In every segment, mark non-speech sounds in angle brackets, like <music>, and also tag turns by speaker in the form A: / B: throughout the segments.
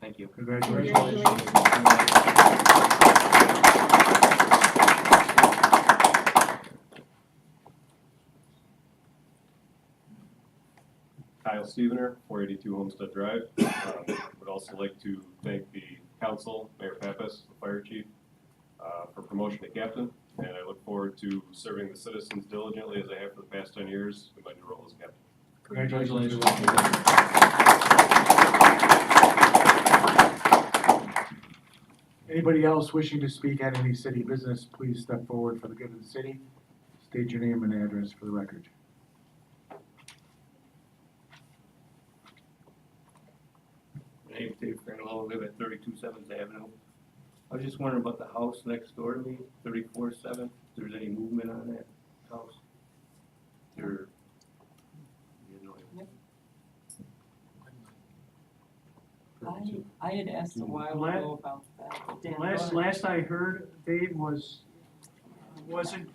A: Thank you.
B: Congratulations.
A: Kyle Stevener, four eighty-two Homestead Drive. Um, Would also like to thank the council, Mayor Pappas, the fire chief, uh, for promotion to captain. And I look forward to serving the citizens diligently as I have for the past ten years in my new role as captain.
B: Congratulations. Anybody else wishing to speak at any city business, please step forward for the good of the city. State your name and address for the record.
C: My name's Dave Crandall, I live at thirty-two Seventh Avenue. I was just wondering about the house next door to me, thirty-four Seventh, if there's any movement on that house? There, you know,
D: I, I had asked a while
E: Let-
D: ago about that. Dan
E: Last,
D: Miller.
E: last I heard, Dave, was, wasn't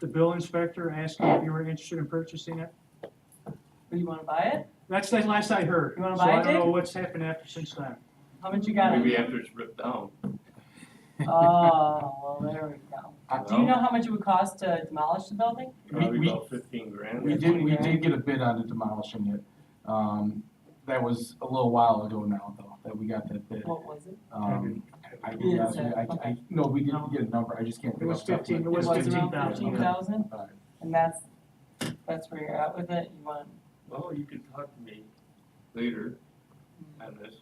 E: the bill inspector asking if you were interested in purchasing it?
D: Oh, You wanna buy it?
E: That's the last I heard.
D: You wanna buy it,
E: So I don't know
D: Dave?
E: what's happened after since then.
D: How much you got?
C: maybe after it's ripped down.
D: Oh, well, there we go. Do you
C: Well,
D: know how much it would cost to demolish the building?
C: Probably
F: We-
C: about fifteen grand.
F: We did, we did get a bid on it demolishing it. Um, that was a little while ago now, though, that we got that bid.
D: What was it?
F: Um, I
D: You
F: did,
D: didn't
F: ask you,
D: say,
F: I, I, no, we didn't get a number, I just can't.
E: It
F: think
E: was
F: off the top of my-
E: 15 it was
D: around
E: 15,000.
D: fifteen thousand,
F: All right.
D: and that's, that's where you're at with it, you want,
C: Well, you can talk to me later on this.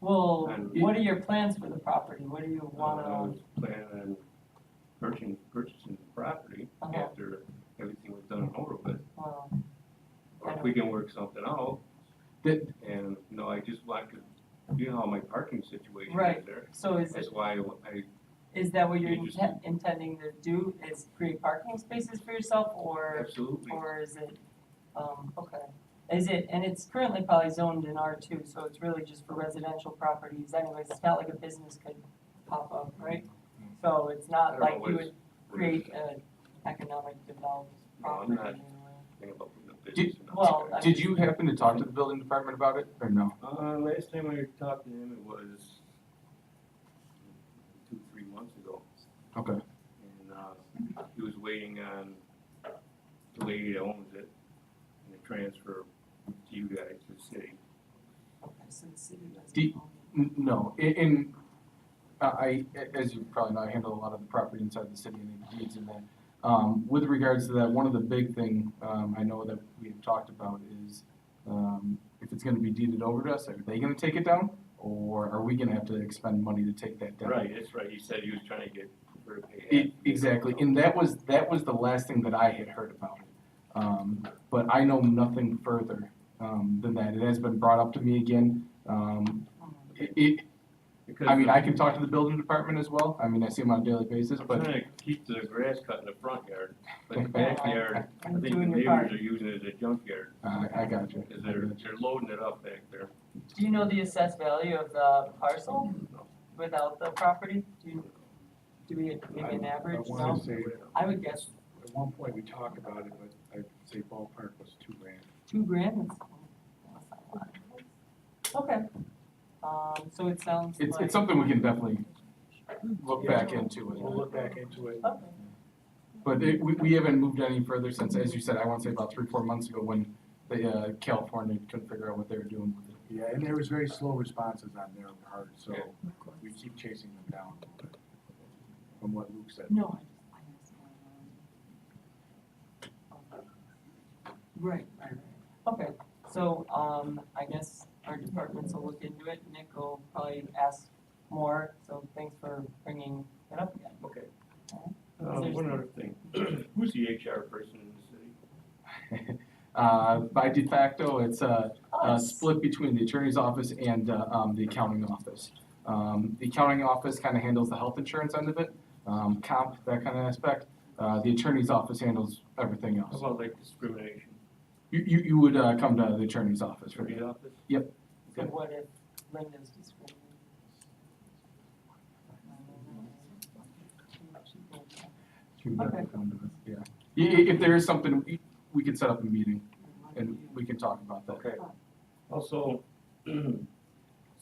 D: well,
C: And-
D: what are your plans for the property? What do you
C: Uh, I
D: wanna,
C: was planning on purchasing, purchasing the property
D: Uh-huh.
C: after everything was done and over with.
D: well,
C: or if we can work something out.
F: Did-
C: And, no, I just want to, you know, how my parking situation
D: Right.
C: is there.
D: so is,
C: That's why I, I-
D: is that what you're
C: You just-
D: inten- intending to do, is create parking spaces for yourself, or?
C: absolutely,
D: Or is it, um, okay, is it, and it's currently probably zoned in R two, so it's really just for residential properties anyways, it's not like a business could pop up, right? So it's
C: I
D: not
C: don't
D: like
C: know what
D: you
C: it's-
D: would create an economic development
C: No, I'm
D: property.
C: not-
D: anyway.
C: think about putting a business in.
D: well, I-
F: Did you happen to talk to the building department about it, or no?
C: Uh, last time I talked to him, it was two, three months ago.
F: Okay.
C: And, uh, he was waiting on the lady that owns it and the transfer to you guys, to the city.
D: Okay, so the city doesn't
F: Do-
D: own
F: N- No, in, in, I, I- as you probably know, I handle a lot of the property inside the city and the deeds and that. Um, with regards to that, one of the big thing, um, I know that we have talked about is, um, if it's gonna be deeded over to us, are they gonna take it down? Or are we gonna have to expend money to take that down?
C: Right, that's right, he said he was trying to get her to pay
F: E-
C: half.
F: Exactly, and that was, that was the last thing that I had heard about it. Um, but I know nothing further, um, than that. It has been brought up to me again. Um, it, it,
C: Because
F: I mean,
C: the-
F: I can talk to the building department as well. I mean, I see them on a daily basis,
C: I'm
F: but
C: trying to keep the grass cut in the front yard, but
F: <laughs>
C: the backyard,
D: it.
C: I
D: You're
C: think the
D: doing your
C: neighbors
D: part.
C: are using it as a junkyard,
F: uh, I got you.
C: because they're, they're loading it up back there.
D: Do you know the assessed value of the parcel
C: No.
D: without the property? Do you, do we, maybe an average,
B: I wanna
D: no?
B: say,
D: I would guess
B: at one point we talked about it, but I'd say ballpark was two grand.
D: Two grand, that's, that's not a lot. Okay, um, so it sounds like.
F: It's, it's something we can definitely look back into.
B: We'll
F: it.
B: look back into it.
D: Okay,
F: But it, we, we haven't moved any further since, as you said, I want to say about three, four months ago when the, uh, California couldn't figure out what they were doing with it.
B: Yeah, and there was very slow responses on their part, so
C: Yeah.
B: we keep chasing them down a little bit. From what Luke said.
D: no, I, I just wanna know. Right, right, right. Okay, so, um, I guess our departments will look into it, Nick will probably ask more, so thanks for bringing it up again.
C: Okay.
D: Alright.
C: Uh, one other thing, <clears throat> who's the HR person in the city?
F: Uh, by de facto, it's, uh,
D: Oh,
F: uh, split between the attorney's office and uh, um, the accounting office. Um, The accounting office kind of handles the health insurance end of it, um, comp, that kind of aspect. Uh, The attorney's office handles everything
C: How
F: else.
C: about like discrimination,
F: You, you you would uh, come to the attorney's office for
C: attorney's
F: that.
C: office?
D: So what if Linda's discriminating?
F: You would
D: Okay.
F: come to us, Yeah. I- i- If there is something, we- we could set up a meeting and we can talk about that.
C: Okay. Also, <clears throat> I